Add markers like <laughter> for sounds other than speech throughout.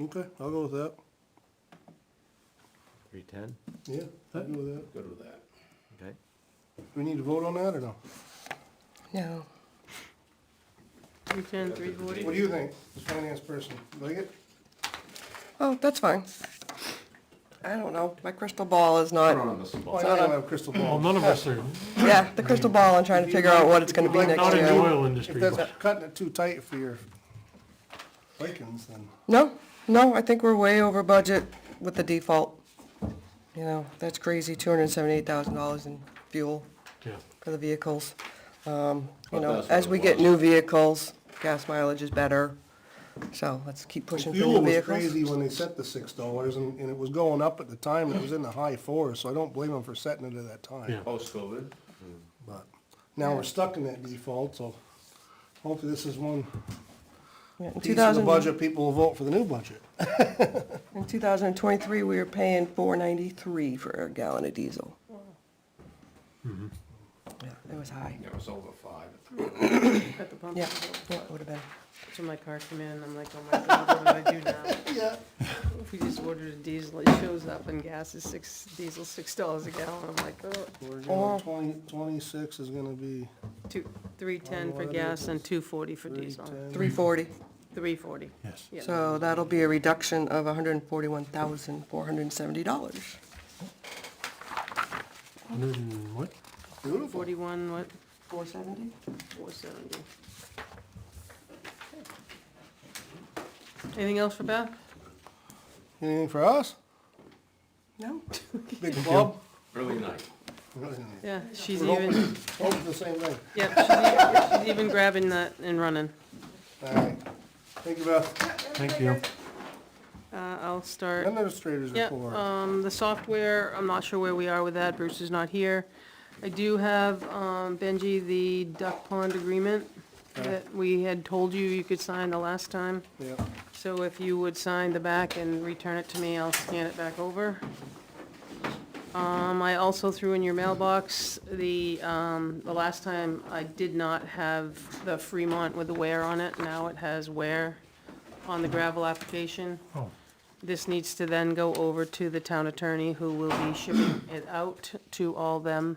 Okay, I'll go with that. Three ten, Yeah, I'll go with that. Good with that. okay. We need to vote on that or no? No. Three ten, three forty. What do you think, as finance person? Like it? Oh, that's fine. I don't know. My crystal ball is not, Well, I know you don't have a crystal Well, ball. none of us are, yeah, the crystal ball, I'm trying to figure out what it's gonna be next not in the year. oil If industry, that's but cutting it too tight for your Vikings, then. No, no, I think we're way over budget with the default. You know, that's crazy, two hundred and seventy-eight thousand dollars in fuel yeah, for the vehicles. Um, you Well, know, that's what as it we get was. new vehicles, gas mileage is better. So let's keep pushing for Fuel new was vehicles. crazy when they set the six dollars and, and it was going up at the time. It was in the high fours, so I don't blame them for setting it at that time. Yeah. Post-COVID, But now we're stuck in that default, so hopefully this is one Yeah, In two piece of the thousand, budget, people will vote for the new budget. in two thousand and twenty-three, we were paying four ninety-three for a gallon of diesel. Mm-hmm. Yeah, it was high. it was over five. At the pump. Yeah, yeah, it would have been. So my car came in and I'm like, oh my god, what do I <laughs> do now? Yeah. If we just ordered a diesel, it shows up and gas is six, diesel six dollars a gallon. I'm like, oh, We're Or- gonna, twenty, twenty-six is gonna be two, three ten for Whatever it gas and is. two forty for three diesel. ten. Three forty, Three forty. yes. Yeah. so that'll be a reduction of hundred and forty-one thousand, four hundred and seventy dollars. Hundred and Mm, what? Beautiful. Forty-one, what, Four seventy? four seventy. Anything else for Beth? Anything for us? No? Big club? Really nice. Really? Yeah, she's We're hoping, even, hoping the same thing. yeah, she's e- she's even grabbing that and running. All right. Thank you, Beth. Thank you. Uh, I'll start. Administrators Yeah, report. um, the software, I'm not sure where we are with that, Bruce is not here. I do have, um, Benji, the duck pond agreement that we had told you you could sign the last time. Yeah. So if you would sign the back and return it to me, I'll scan it back over. Um, I also threw in your mailbox, the, um, the last time I did not have the Fremont with the wear on it, now it has wear on the gravel application. Oh, This needs to then go over to the town attorney, who will be shipping it out to all them,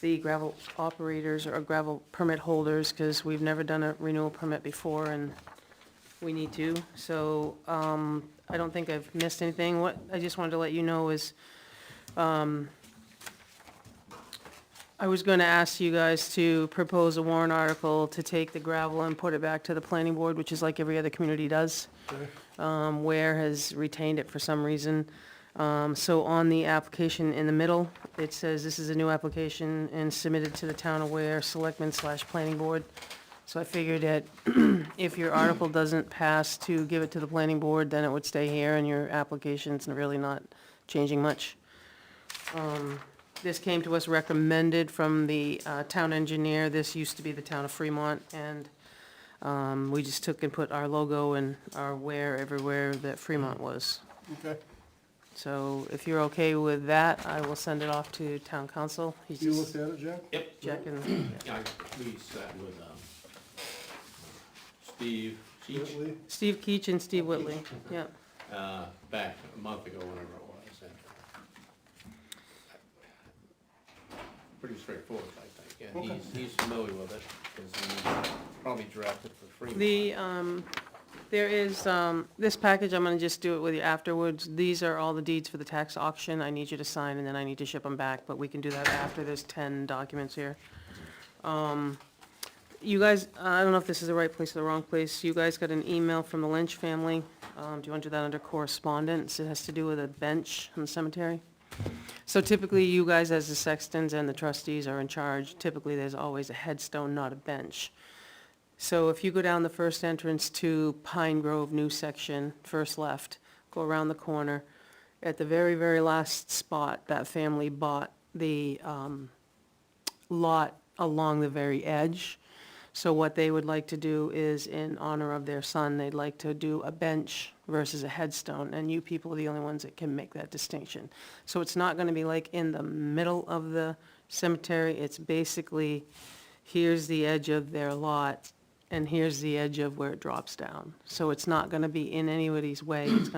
the gravel operators or gravel permit holders, because we've never done a renewal permit before, and we need to. So, um, I don't think I've missed anything. What I just wanted to let you know is, um, I was gonna ask you guys to propose a warrant article to take the gravel and put it back to the planning board, which is like every other community does. Um, Ware has retained it for some reason. Um, so on the application in the middle, it says this is a new application and submitted to the town of Ware Selectmen slash Planning Board. So I figured that if your article doesn't pass to give it to the planning board, then it would stay here and your application's really not changing much. Um, This came to us recommended from the uh, town engineer. This used to be the town of Fremont, and um, we just took and put our logo and our where everywhere that Fremont was. Okay. So if you're okay with that, I will send it off to town council. He's You looked just at it, Jack? Yep. checking. I, we sat with, um, Steve Cheech, Lee? Steve Keach and Steve Whitley, yeah. uh, back a month ago, whenever it was. and uh, Pretty straightforward, I think, and he's, he's familiar with it, because he probably drafted for free. The, um, there is, um, this package, I'm gonna just do it with you afterwards. These are all the deeds for the tax auction. I need you to sign and then I need to ship them back, but we can do that after. There's ten documents here. Um, you guys, I don't know if this is the right place or the wrong place. You guys got an email from the Lynch family. Um, do you want to do that under correspondence? It has to do with a bench in the cemetery. So typically, you guys as the sextons and the trustees are in charge. Typically, there's always a headstone, not a bench. So if you go down the first entrance to Pine Grove New Section, first left, go around the corner, at the very, very last spot, that family bought the um, lot along the very edge. So what they would like to do is, in honor of their son, they'd like to do a bench versus a headstone, and you people are the only ones that can make that distinction. So it's not gonna be like in the middle of the cemetery, it's basically, here's the edge of their lot, and here's the edge of where it drops down. So it's not gonna be in anybody's way, it's